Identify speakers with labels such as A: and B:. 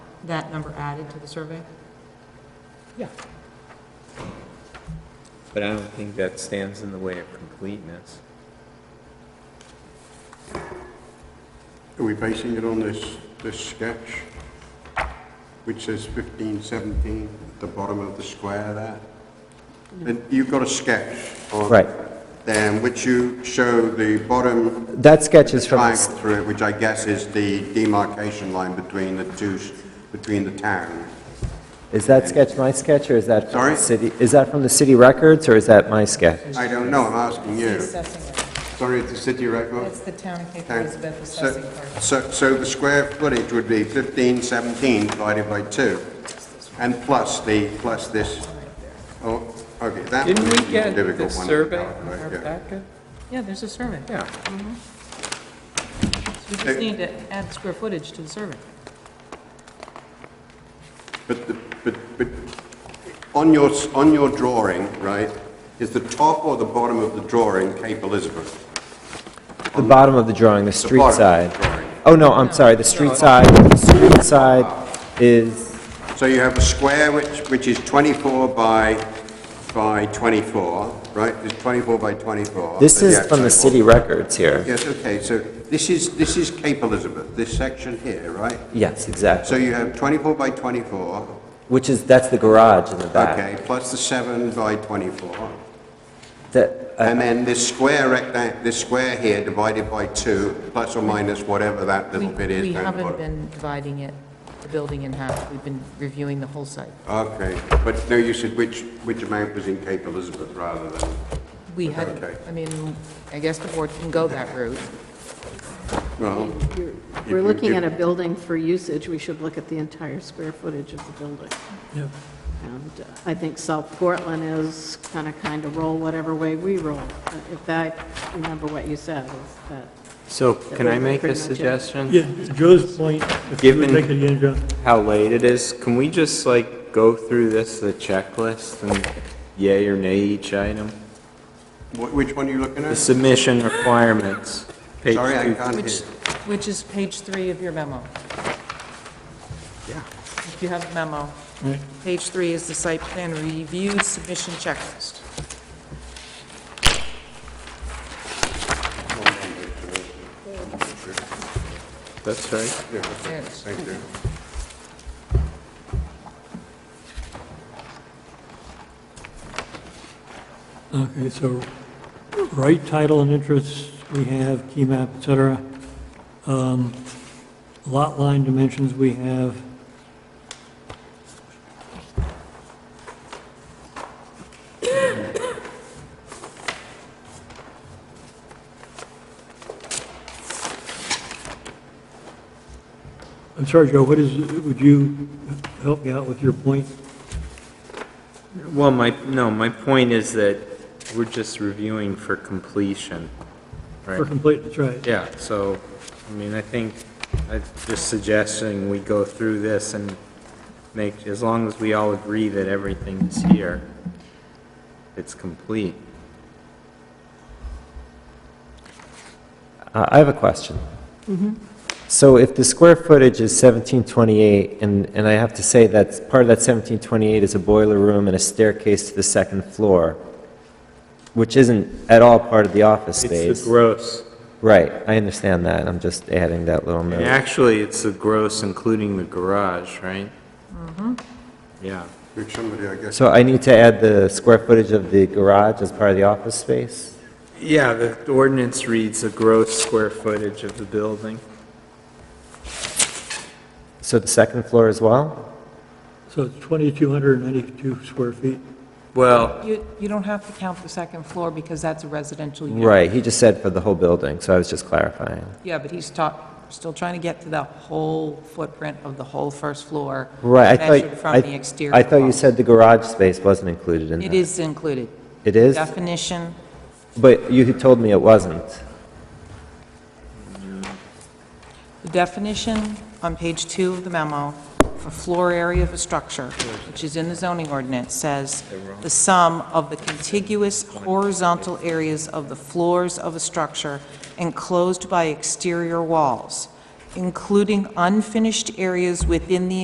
A: that number added to the survey?
B: Yeah.
C: But I don't think that stands in the way of completeness.
D: Are we basing it on this, this sketch, which says 1517 at the bottom of the square there? And you've got a sketch on...
B: Right.
D: Then which you show the bottom
B: That sketch is from,
D: triangle through it, which I guess is the demarcation line between the two, s- between the town.
B: is that sketch my sketch, or is that from
D: Sorry?
B: the city, is that from the city records, or is that my sketch?
D: I don't know, I'm asking you.
E: Assessing it.
D: Sorry, it's the city record?
E: It's the town of Cape
D: Town.
E: Elizabeth
D: So-
E: assessing part.
D: So, so the square footage would be 1517 divided by 2, and plus the, plus this, oh, okay, that
C: Didn't
D: one's
C: we
D: a
C: get the
D: difficult one. to
C: survey
D: calculate,
C: in our
D: yeah.
C: packet?
A: Yeah, there's a survey. Mm-hmm.
C: Yeah.
A: We just need to add square footage to the survey.
D: But, the- but, but, on your, s- on your drawing, right, is the top or the bottom of the drawing Cape Elizabeth?
B: The bottom of the drawing, the street
D: bottom of
B: side.
D: the drawing.
B: Oh, no, I'm sorry, the street side, the street side is,
D: So you have a square which, which is 24 by, by 24, right? It's 24 by 24.
B: this
D: Yeah,
B: is from the
D: 24.
B: city records here.
D: Yes, okay, so this is, this is Cape Elizabeth, this section here, right?
B: Yes,
D: So
B: exactly,
D: you have 24 by 24,
B: which is, that's the garage in the back.
D: okay, plus the 7 by 24,
B: That, uh,
D: and then this square rectangle, this square here divided by 2, plus or minus whatever that
E: We
D: little bit
E: we
D: is down the
E: haven't
D: bottom.
E: been dividing it, the building in half. We've been reviewing the whole site.
D: Okay, but no, you said which, which amount was in Cape Elizabeth rather than,
E: We had,
D: Okay.
E: I mean, I guess the board can go that route.
D: well,
F: You're-
D: If
F: We're
D: you
F: looking
D: give-
F: at a building for usage, we should look at the entire square footage of the building. And uh, I think South Portland is kind of, kind of roll whatever way we roll. If I remember what you said, is that
C: So can I
F: was
C: make a
F: pretty much it.
C: suggestion?
G: Yeah, Joe's point, if you would
C: Given-
G: make it again, Joe.
C: How late it is? Can we just like go through this, the checklist, and yay or nay each item?
D: wh- which one are you looking
C: The
D: at?
C: submission requirements, page
D: Sorry, I
C: two.
D: can't hear.
A: Which, which is page three of your memo.
D: Yeah.
A: If you have a memo,
G: Right.
A: page three is the site plan review submission checklist.
C: That's right.
A: Yes.
D: Thank you.
G: Okay, so right title and interests, we have key map, et cetera. Um, Lot line dimensions, we have. I'm sorry, Joe, what is, would you help me out with your point?
C: Well, my, no, my point is that we're just reviewing for completion.
G: For
C: Right.
G: complete, that's right.
C: Yeah, so, I mean, I think, I'm just suggesting we go through this and make, as long as we all agree that everything's here, it's complete.
B: Uh, I I have a question.
A: Mm-hmm.
B: So if the square footage is 1728, and, and I have to say that part of that 1728 is a boiler room and a staircase to the second floor, which isn't at all part of the office
C: It's
B: space.
C: the gross,
B: Right, I understand that, I'm just adding that little
C: and
B: note.
C: actually, it's the gross including the garage, right? Mm-hmm. Yeah,
D: Which somebody, I guess,
B: So I need to add the square footage of the garage as part of the office space?
C: yeah, the ordinance reads the gross square footage of the building.
B: So the second floor as well?
G: So it's 2,292 square feet.
C: Well,
A: You, you don't have to count the second floor because that's a residential unit.
B: Right, he just said for the whole building, so I was just clarifying.
A: Yeah, but he's talk, still trying to get to the whole footprint of the whole first floor.
B: Right, I
A: Measured
B: thought,
A: from the
B: I,
A: exterior.
B: I thought you
A: wall.
B: said the garage space wasn't included in that.
A: It is included.
B: It is?
A: Definition,
B: But you had told me it wasn't.
A: the definition on page two of the memo for floor area of a structure, which is in the zoning ordinance, says the sum of the contiguous horizontal areas of the floors of a structure enclosed by exterior walls, including unfinished areas within the